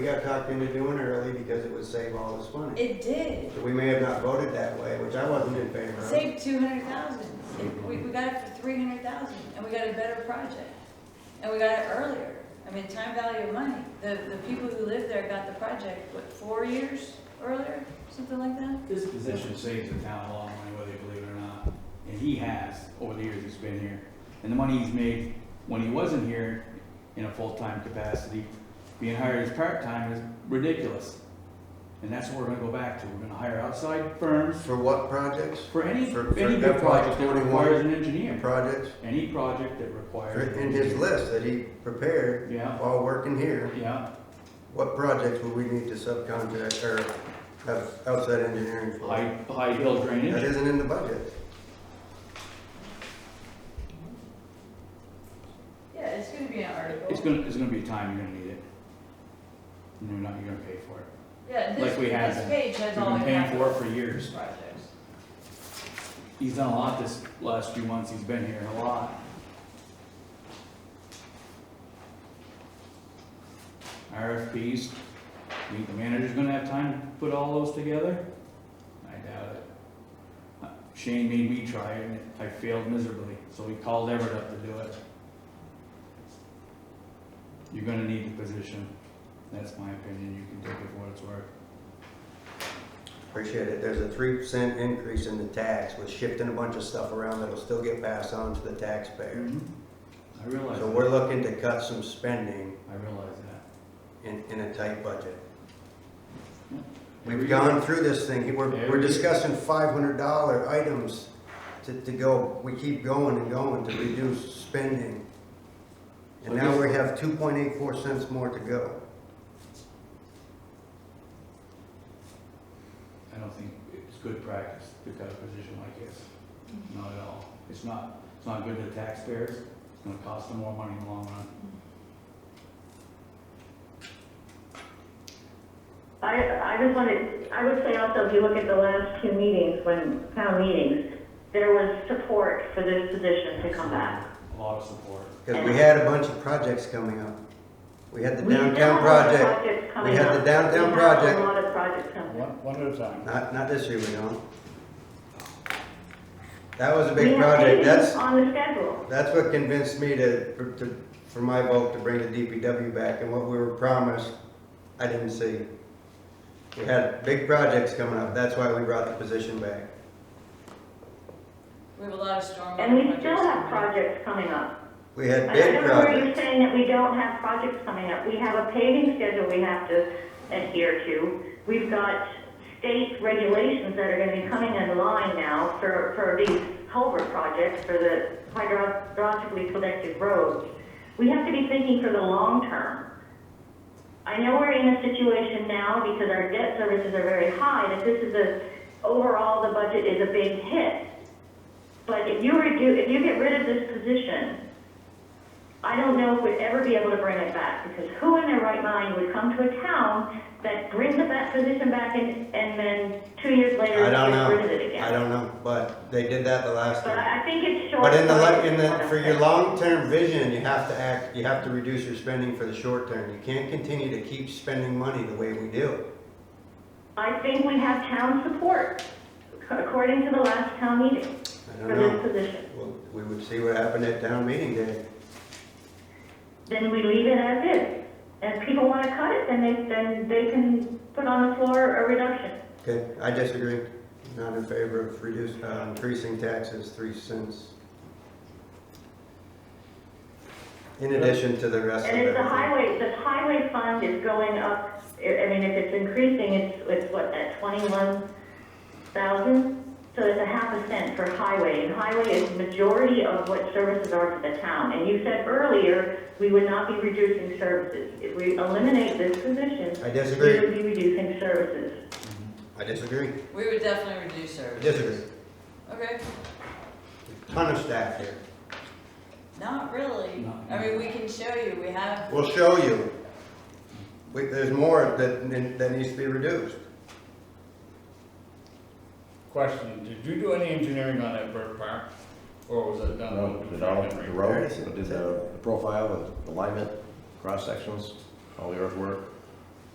We got talked into doing it early because it would save all this money. It did. So we may have not voted that way, which I wasn't in favor of. Saved two hundred thousand. We, we got it for three hundred thousand and we got a better project. And we got it earlier. I mean, time value of money. The, the people who live there got the project, what, four years earlier? Something like that? This position saves the town a lot of money, whether you believe it or not, and he has over the years he's been here. And the money he's made when he wasn't here in a full-time capacity, being hired as part-time is ridiculous. And that's what we're gonna go back to, we're gonna hire outside firms For what projects? for any, For- for any big FY project that 21. requires an engineer. Projects, Any project that requires. an in his engineer. list that he prepared Yeah, while working here, yeah, what projects would we need to subcontract or have outside engineering for? high, high hill That drainage, isn't in the budget. Yeah, it's gonna be an article. it's gonna, it's gonna be a time you're gonna need it. And you're not, you're gonna pay for it. Yeah, this- like we have this been. page We've has been paying for it for years. projects. He's done a lot this last few months, he's been here a lot. RFPs, you think the manager's gonna have time to put all those together? I doubt it. Uh, Shane made me try it, and I failed miserably, so we called Everett up to do it. You're gonna need the position, that's my opinion, you can take it for what it's worth. Appreciate it. There's a three cent increase in the tax with shifting a bunch of stuff around that'll still get passed on to the taxpayer. I realize So we're that, looking to cut some spending I realize that. in, in a tight budget. Every We've year- gone through this thing, we're, Every we're year. discussing five hundred dollar items to, to go, we keep going and going to reduce spending. And So now this- we have two point eight four cents more to go. I don't think it's good practice to cut a position like this, not at all. It's not, it's not good to the taxpayers, it's gonna cost them more money in the long run. I, I just wanted, I would say also, if you look at the last two meetings, when, town meetings, there was support for this position to come back. A lot of support. Cause we had a bunch of projects coming up. We had the We have downtown a lot of project, projects we coming had the up. downtown We have A project, lot of projects coming up. One, one at a time. not, not this year we don't. That was a We big have project, paving that's, On the schedule. That's what convinced me to, for- to, for my vote to bring the DPW back, and what we were promised, I didn't see. We had big projects coming up, that's why we brought the position back. We have a lot of stormwater. And we still projects. have projects coming up. We had I big don't know where you're projects. saying that we don't have projects coming up. We have a paving schedule we have to adhere to. We've got state regulations that are gonna be coming in line now for, for these culvert projects, for the hydrologically connected roads. We have to be thinking for the long term. I know we're in a situation now because our debt services are very high, that this is a, overall, the budget is a big hit. But if you redo, if you get rid of this position, I don't know if we'd ever be able to bring it back, because who in their right mind would come to a town that brings the back position back and, and then two years later, I don't gets rid of it know, again? I don't know, but they did that the last But time. I I think it's short. But in the, li- in the, for your long-term vision, you have to act, you have to reduce your spending for the short term. You can't continue to keep spending money the way we do. I think we have town support, according to the last town meeting, I for don't this know. position. Well, We would see what happened at town meeting day. Then we leave it as is. And if people want to cut it, then they, then they can put on the floor a reduction. Okay, I disagree. Not in favor of reduce, uh, increasing taxes three cents. In addition to the rest of And if the everything. highway, the highway fund is going up, I I mean, if it's increasing, it's, it's what, at twenty-one thousand? So it's a half a cent for highway, and highway is majority of what services are for the town. And you said earlier, we would not be reducing services. If we eliminate this position, I we disagree. would be reducing services. I disagree. We would definitely reduce I service. disagree. Okay, Ton of staff here. not really. Not- I mean, we can show you, we have We'll show you. We, there's more that, that needs to be reduced. Question, did you do any engineering on that bird park? Or was it done? No, with did all the Henry? roads, did the the profile, the alignment, cross sections, all the earthwork,